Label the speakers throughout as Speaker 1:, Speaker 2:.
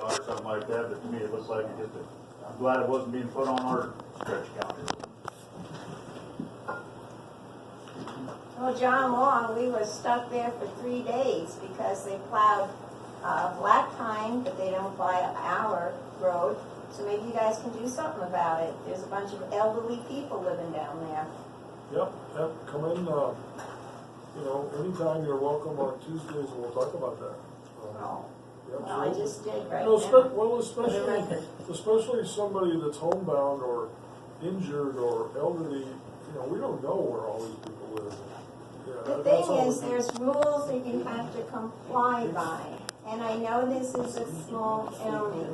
Speaker 1: or something like that, but to me, it looks like it just, a- I'm glad it wasn't being put on our stretch county.
Speaker 2: Well, John Long, we were stuck there for three days because they plowed, uh, black pine, but they don't plow our road. So maybe you guys can do something about it. There's a bunch of elderly people living down there.
Speaker 3: Yep, yep, come in, uh, you know, anytime you're welcome on Tuesdays, we'll talk about that. Uh,
Speaker 2: Well,
Speaker 3: yeah,
Speaker 2: Oh, I
Speaker 3: absolutely.
Speaker 2: just did right
Speaker 3: No, spe-
Speaker 2: now.
Speaker 3: well,
Speaker 2: For the
Speaker 3: especially,
Speaker 2: record.
Speaker 3: especially somebody that's homebound or injured or elderly, you know, we don't know where all these people live. Yeah,
Speaker 2: The
Speaker 3: that- that's all
Speaker 2: thing is,
Speaker 3: we-
Speaker 2: there's rules that you have to comply by. And I know this is a small county,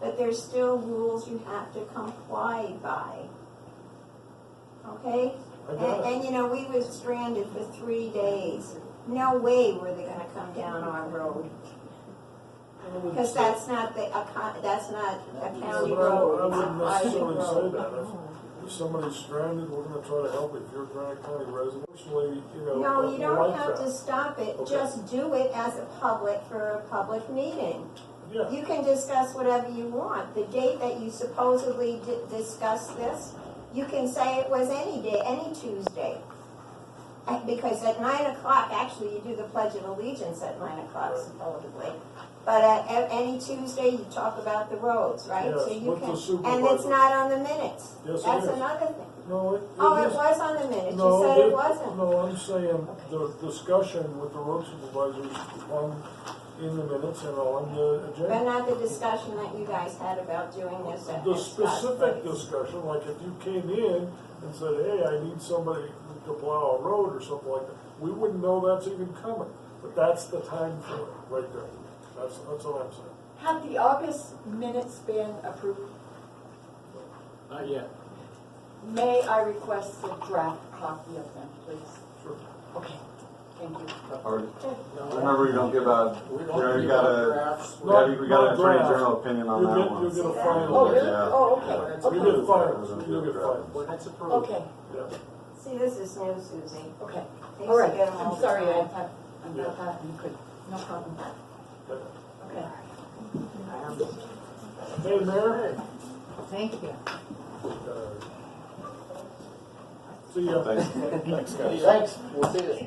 Speaker 2: but there's still rules you have to comply by. Okay?
Speaker 3: I
Speaker 2: And,
Speaker 3: got it.
Speaker 2: and you know, we were stranded for three days. No way were they gonna come down our road, because that's not the, a co- that's not a
Speaker 3: Yeah,
Speaker 2: county
Speaker 3: but I
Speaker 2: road,
Speaker 3: I
Speaker 2: it's a
Speaker 3: wouldn't
Speaker 2: private
Speaker 3: necessarily say
Speaker 2: road.
Speaker 3: that. If- If somebody's stranded, we're gonna try to help it. If you're a Granite County resident, actually, you know.
Speaker 2: No, you
Speaker 3: we
Speaker 2: don't
Speaker 3: like
Speaker 2: have to
Speaker 3: that.
Speaker 2: stop it,
Speaker 3: Okay.
Speaker 2: just do it as a public, for a public meeting.
Speaker 3: Yeah,
Speaker 2: You can discuss whatever you want. The date that you supposedly di- discussed this, you can say it was any day, any Tuesday. And Because at nine o'clock, actually, you do the Pledge of Allegiance at nine o'clock supposedly. But at, at any Tuesday, you talk about the roads, right? So
Speaker 3: Yes,
Speaker 2: you
Speaker 3: with the
Speaker 2: can, And it's
Speaker 3: supervisor.
Speaker 2: not on the minutes.
Speaker 3: Yes, it
Speaker 2: That's
Speaker 3: is.
Speaker 2: another thing.
Speaker 3: no, it.
Speaker 2: Oh, it
Speaker 3: is-
Speaker 2: was on the minutes. You
Speaker 3: No,
Speaker 2: said it
Speaker 3: the-
Speaker 2: wasn't.
Speaker 3: No, I'm saying the discussion with the road supervisors on, in the minutes and on the
Speaker 2: But
Speaker 3: agenda.
Speaker 2: not the discussion that you guys had about doing this at
Speaker 3: The
Speaker 2: Scott's
Speaker 3: specific
Speaker 2: place.
Speaker 3: discussion, like if you came in and said, hey, I need somebody to plow a road or something like that, we wouldn't know that's even coming. But that's the time for it, right there. That's, that's all I'm saying.
Speaker 4: Have the August minutes been approved?
Speaker 5: Not yet.
Speaker 4: May I request a draft copy of them, please?
Speaker 3: Sure.
Speaker 4: Okay, thank you.
Speaker 6: Or, remember, you don't give a,
Speaker 5: We
Speaker 6: you
Speaker 5: don't
Speaker 6: know,
Speaker 5: give
Speaker 6: you
Speaker 5: out
Speaker 6: got
Speaker 5: drafts.
Speaker 6: a, we got,
Speaker 3: Not-
Speaker 6: we got
Speaker 3: not
Speaker 6: an attorney
Speaker 3: draft.
Speaker 6: general opinion on
Speaker 3: You'll
Speaker 6: that
Speaker 3: get, you'll
Speaker 6: one.
Speaker 3: get a
Speaker 2: See that?
Speaker 3: fine.
Speaker 4: Oh,
Speaker 3: on
Speaker 4: really?
Speaker 3: that.
Speaker 4: Oh, okay,
Speaker 3: You'll
Speaker 4: okay,
Speaker 3: get fined, you'll get fined,
Speaker 5: When it's approved.
Speaker 4: okay,
Speaker 3: yeah.
Speaker 2: See, this is new, Susie.
Speaker 4: okay.
Speaker 2: They
Speaker 4: All
Speaker 2: used to
Speaker 4: right,
Speaker 2: get 'em all
Speaker 4: I'm
Speaker 2: the
Speaker 4: sorry, I
Speaker 2: time.
Speaker 4: thought, I thought that you could, no problem. Okay.
Speaker 3: Hey, Mayor.
Speaker 4: Thank you.
Speaker 3: See ya.
Speaker 6: Thanks. Thanks, guys.
Speaker 5: Thanks, we'll see you.